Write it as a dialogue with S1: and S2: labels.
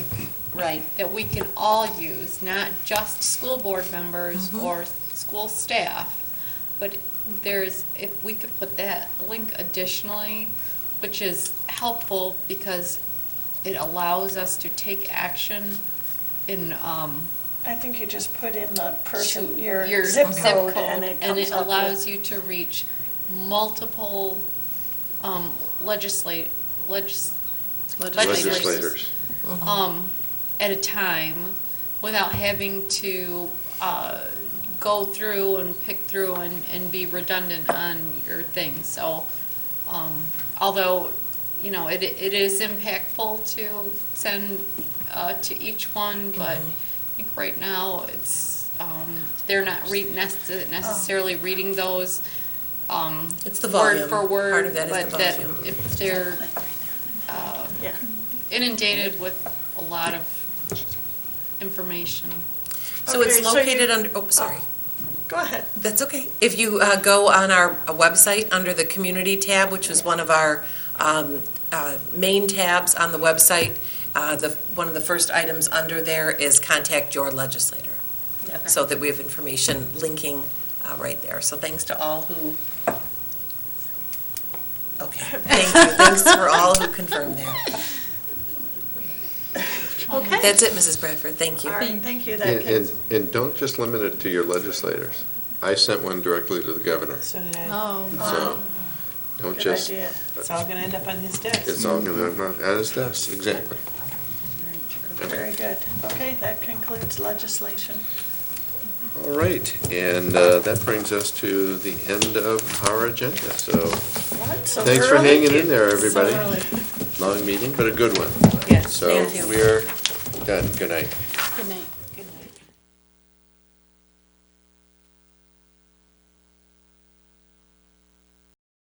S1: Right.
S2: that we can all use, not just school board members or school staff. But there's, if we could put that link additionally, which is helpful because it allows us to take action in, um,
S3: I think you just put in the person,
S2: to
S3: your zip code, and it
S2: and
S3: comes
S2: it
S3: up
S2: allows
S3: with-
S2: you to reach multiple um, legislate, legis-
S3: Legislators.
S2: legislators um, at a time without having to uh, go through and pick through and, and be redundant on your thing. So, um, although, you know, it, it is impactful to send uh, to each one, but I think right now it's, um, they're not re- necess- necessarily reading those. um,
S4: It's the volume.
S2: Word for word.
S4: Part of that is the
S2: but that
S4: volume.
S2: If they're um,
S3: Yeah.
S2: inundated with a lot of information.
S4: So
S3: Okay,
S4: it's
S3: so you-
S4: located under, oh, sorry.
S3: Go ahead.
S4: That's okay. If you uh, go on our uh, website, under the Community tab, which is one of our um, uh, main tabs on the website, uh, the, one of the first items under there is Contact Your Legislator. So that we have information linking uh, right there. So thanks to all who, okay, thank you. Thanks for all who confirmed there.
S3: Okay.
S4: That's it, Mrs. Bradford. Thank you.
S3: All right, thank you, that
S5: And,
S3: gives,
S5: and, and don't just limit it to your legislators. I sent one directly to the governor,
S6: So did I.
S2: Oh,
S5: so don't
S3: good
S5: just,
S3: idea.
S6: It's all gonna end up on his desk.
S5: it's all gonna, on his desk, exactly.
S3: Very good. Okay, that concludes legislation.
S5: All right, and uh, that brings us to the end of our agenda, so
S3: What? So
S5: thanks for
S3: early?
S5: hanging in there,
S3: So
S5: everybody.
S3: early.
S5: Long meeting, but a good one.
S6: Yes,
S5: So
S4: thank you.
S5: we're done, good night.
S2: good night.